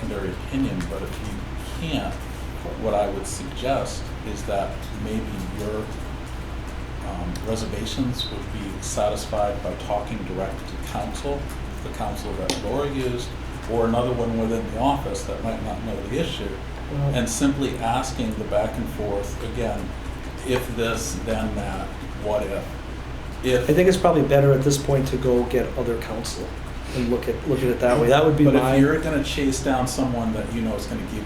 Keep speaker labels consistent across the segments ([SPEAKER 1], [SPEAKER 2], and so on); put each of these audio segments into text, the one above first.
[SPEAKER 1] contrary opinion, but if you can't, what I would suggest is that maybe your um, reservations would be satisfied by talking direct to counsel, the counsel that Laura used, or another one within the office that might not know the issue,
[SPEAKER 2] Well-
[SPEAKER 1] and simply asking the back and forth, again, if this, then that, what if? If.
[SPEAKER 2] I think it's probably better at this point to go get other counsel and look at, look at it that way. That would be
[SPEAKER 1] But
[SPEAKER 2] my.
[SPEAKER 1] if you're gonna chase down someone that you know is gonna give you.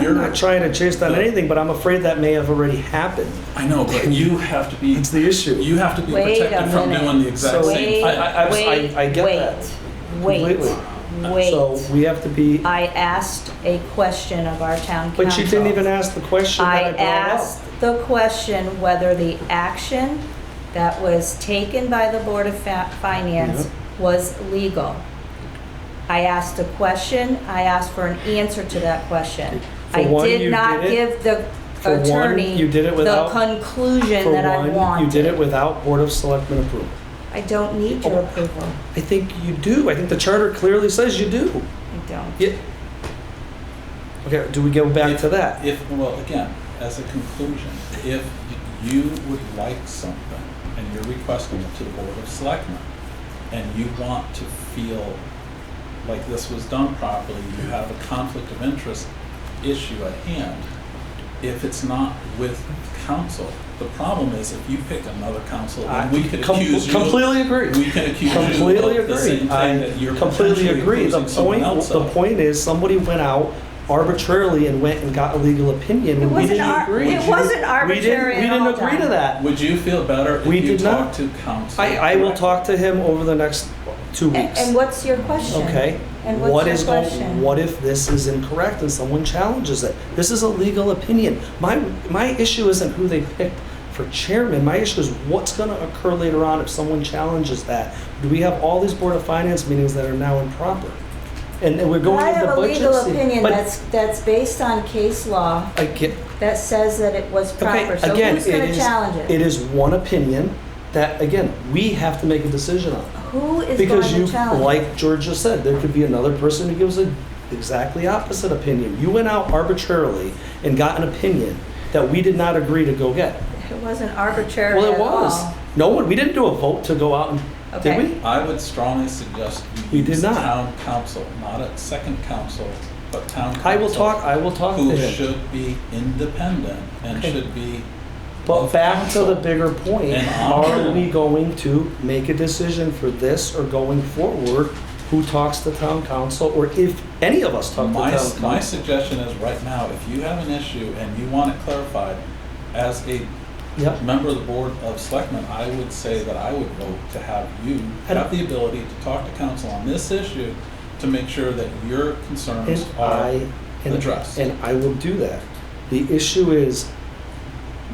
[SPEAKER 1] your-
[SPEAKER 2] I'm not trying to chase down
[SPEAKER 1] No.
[SPEAKER 2] anything, but I'm afraid that may have already happened.
[SPEAKER 1] I know, but you have to be,
[SPEAKER 2] It's the issue.
[SPEAKER 1] you have to be
[SPEAKER 3] Wait a
[SPEAKER 1] protected from
[SPEAKER 3] minute.
[SPEAKER 1] doing the exact
[SPEAKER 2] So-
[SPEAKER 1] same.
[SPEAKER 3] Wait,
[SPEAKER 2] I- I- I was- I-
[SPEAKER 3] wait,
[SPEAKER 2] I get that
[SPEAKER 3] wait,
[SPEAKER 2] completely.
[SPEAKER 3] wait,
[SPEAKER 2] So
[SPEAKER 3] wait.
[SPEAKER 2] we have to be,
[SPEAKER 3] I asked a question of our town council.
[SPEAKER 2] but she didn't even ask the question that I
[SPEAKER 3] I
[SPEAKER 2] brought
[SPEAKER 3] asked
[SPEAKER 2] up.
[SPEAKER 3] the question whether the action that was taken by the Board of Fa- Finance was legal. I asked a question, I asked for an answer to that question.
[SPEAKER 2] For
[SPEAKER 3] I
[SPEAKER 2] one, you
[SPEAKER 3] did not
[SPEAKER 2] did it.
[SPEAKER 3] give the
[SPEAKER 2] For one,
[SPEAKER 3] attorney
[SPEAKER 2] you did it
[SPEAKER 3] the
[SPEAKER 2] without-
[SPEAKER 3] conclusion
[SPEAKER 2] For
[SPEAKER 3] that I
[SPEAKER 2] one, you did it
[SPEAKER 3] wanted.
[SPEAKER 2] without Board of Selectmen approval.
[SPEAKER 3] I don't need
[SPEAKER 2] Oh.
[SPEAKER 3] your approval,
[SPEAKER 2] I think you do. I think the charter clearly says you do.
[SPEAKER 3] I don't.
[SPEAKER 2] Yeah. Okay, do we go back
[SPEAKER 1] If-
[SPEAKER 2] to that?
[SPEAKER 1] If, well, again, as a conclusion, if you would like something and you're requesting it to the Board of Selectmen, and you want to feel like this was done properly, you have a conflict of interest issue at hand, if it's not with council. The problem is if you pick another council,
[SPEAKER 2] I
[SPEAKER 1] then we could
[SPEAKER 2] com-
[SPEAKER 1] accuse you.
[SPEAKER 2] Completely agree.
[SPEAKER 1] We can accuse you
[SPEAKER 2] Completely
[SPEAKER 1] of the same
[SPEAKER 2] agree.
[SPEAKER 1] thing
[SPEAKER 2] I
[SPEAKER 1] that you're
[SPEAKER 2] completely
[SPEAKER 1] potentially
[SPEAKER 2] agree. The
[SPEAKER 1] accusing someone
[SPEAKER 2] point,
[SPEAKER 1] else
[SPEAKER 2] the
[SPEAKER 1] of.
[SPEAKER 2] point is, somebody went out arbitrarily and went and got a legal opinion.
[SPEAKER 3] It
[SPEAKER 2] and we
[SPEAKER 3] wasn't
[SPEAKER 2] didn't
[SPEAKER 3] ar-
[SPEAKER 2] agree.
[SPEAKER 3] it
[SPEAKER 2] We
[SPEAKER 3] wasn't
[SPEAKER 2] didn't- We
[SPEAKER 3] arbitrary at
[SPEAKER 2] didn't, we
[SPEAKER 3] all,
[SPEAKER 2] didn't agree to
[SPEAKER 3] Don.
[SPEAKER 2] that.
[SPEAKER 1] Would you feel better if
[SPEAKER 2] We
[SPEAKER 1] you
[SPEAKER 2] did not.
[SPEAKER 1] talked to council?
[SPEAKER 2] I, I will talk to him over the next two
[SPEAKER 3] A-
[SPEAKER 2] weeks.
[SPEAKER 3] And what's your question?
[SPEAKER 2] Okay.
[SPEAKER 3] And
[SPEAKER 2] What
[SPEAKER 3] what's
[SPEAKER 2] is
[SPEAKER 3] your
[SPEAKER 2] going?
[SPEAKER 3] question?
[SPEAKER 2] What if this is incorrect and someone challenges it? This is a legal opinion. My, my issue isn't who they picked for chairman. My issue is what's gonna occur later on if someone challenges that. Do we have all these Board of Finance meetings that are now improper? And and we're going
[SPEAKER 3] I
[SPEAKER 2] into
[SPEAKER 3] have
[SPEAKER 2] the
[SPEAKER 3] a
[SPEAKER 2] budget.
[SPEAKER 3] legal
[SPEAKER 2] se-
[SPEAKER 3] opinion
[SPEAKER 2] but
[SPEAKER 3] that's, that's based on case law
[SPEAKER 2] I get-
[SPEAKER 3] that says that it was
[SPEAKER 2] okay,
[SPEAKER 3] proper. So
[SPEAKER 2] again,
[SPEAKER 3] who's going
[SPEAKER 2] it
[SPEAKER 3] to
[SPEAKER 2] is- It
[SPEAKER 3] challenge it?
[SPEAKER 2] is one opinion that, again, we have to make a decision on.
[SPEAKER 3] Who is going
[SPEAKER 2] Because you,
[SPEAKER 3] to challenge it?
[SPEAKER 2] like Georgia said, there could be another person who gives an exactly opposite opinion. You went out arbitrarily and got an opinion that we did not agree to go get.
[SPEAKER 3] It wasn't arbitrary
[SPEAKER 2] Well, it
[SPEAKER 3] at
[SPEAKER 2] was.
[SPEAKER 3] all.
[SPEAKER 2] No one, we didn't do a vote to go out and, did
[SPEAKER 3] Okay.
[SPEAKER 2] we?
[SPEAKER 1] I would strongly suggest you
[SPEAKER 2] We did
[SPEAKER 1] use
[SPEAKER 2] not.
[SPEAKER 1] town council, not a second council, but town council.
[SPEAKER 2] I will talk, I will talk to
[SPEAKER 1] Who
[SPEAKER 2] him.
[SPEAKER 1] should be independent and
[SPEAKER 2] Okay.
[SPEAKER 1] should be.
[SPEAKER 2] But back to the bigger point,
[SPEAKER 1] And
[SPEAKER 2] are
[SPEAKER 1] honorable.
[SPEAKER 2] we going to make a decision for this or going forward? Who talks to town council or if any of us talk to
[SPEAKER 1] My,
[SPEAKER 2] town
[SPEAKER 1] s-
[SPEAKER 2] council?
[SPEAKER 1] my suggestion is right now, if you have an issue and you want it clarified, as a
[SPEAKER 2] Yep.
[SPEAKER 1] member of the board of selectmen, I would say that I would vote to have you
[SPEAKER 2] And-
[SPEAKER 1] have the ability to talk to council on this issue to make sure that your concerns
[SPEAKER 2] And
[SPEAKER 1] are.
[SPEAKER 2] I, and-
[SPEAKER 1] addressed.
[SPEAKER 2] And I will do that. The issue is,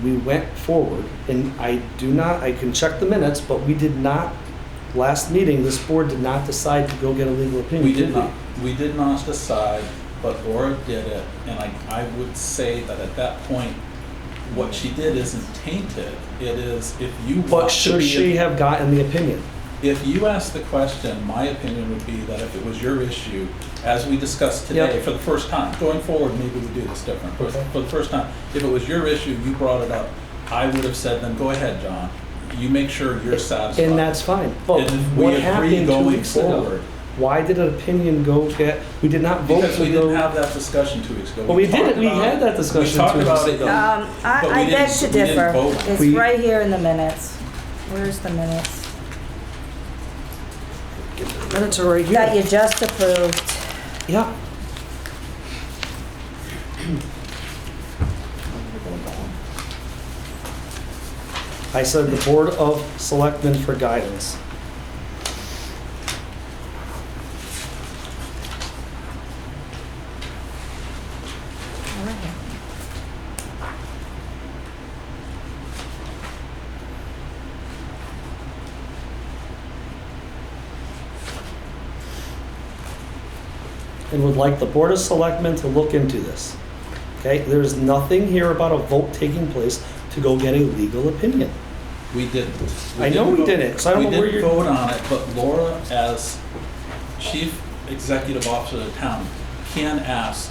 [SPEAKER 2] we went forward, and I do not, I can check the minutes, but we did not, last meeting, this board did not decide to go get a legal opinion.
[SPEAKER 1] We did not, we did not decide, but Laura did it, and I, I would say that at that point, what she did isn't tainted, it is, if you
[SPEAKER 2] But
[SPEAKER 1] want to
[SPEAKER 2] should she
[SPEAKER 1] be,
[SPEAKER 2] have gotten the opinion?
[SPEAKER 1] if you ask the question, my opinion would be that if it was your issue, as we discussed today,
[SPEAKER 2] Yep.
[SPEAKER 1] for the first time, going forward, maybe we do this different, but
[SPEAKER 2] Okay.
[SPEAKER 1] for the first time, if it was your issue, you brought it up, I would have said, then go ahead, John, you make sure you're satisfied.
[SPEAKER 2] And that's fine, but
[SPEAKER 1] And if we
[SPEAKER 2] what
[SPEAKER 1] agree
[SPEAKER 2] happened two
[SPEAKER 1] going
[SPEAKER 2] weeks ago?
[SPEAKER 1] forward-
[SPEAKER 2] Why did an opinion go get, we did not vote
[SPEAKER 1] Because we
[SPEAKER 2] to
[SPEAKER 1] didn't
[SPEAKER 2] go,
[SPEAKER 1] have that discussion two weeks ago.
[SPEAKER 2] Well, we did
[SPEAKER 1] talked
[SPEAKER 2] it. We
[SPEAKER 1] about
[SPEAKER 2] had
[SPEAKER 1] it.
[SPEAKER 2] that discussion
[SPEAKER 1] We talked
[SPEAKER 2] two
[SPEAKER 1] about
[SPEAKER 2] weeks
[SPEAKER 1] it.
[SPEAKER 2] ago.
[SPEAKER 3] Um,
[SPEAKER 1] But we
[SPEAKER 3] I, I beg
[SPEAKER 1] didn't-
[SPEAKER 3] to
[SPEAKER 1] we didn't
[SPEAKER 3] differ.
[SPEAKER 1] vote.
[SPEAKER 3] It's
[SPEAKER 2] We-
[SPEAKER 3] right here in the minutes. Where's the minutes?
[SPEAKER 2] minutes are right here.
[SPEAKER 3] That you just approved.
[SPEAKER 2] Yeah. I said the Board of Selectmen for guidance. and would like the Board of Selectmen to look into this. Okay, there's nothing here about a vote taking place to go get a legal opinion.
[SPEAKER 1] We didn't.
[SPEAKER 2] I know we didn't, so I don't know where
[SPEAKER 1] We
[SPEAKER 2] you're-
[SPEAKER 1] didn't vote on it, but Laura, as chief executive officer of the town, can ask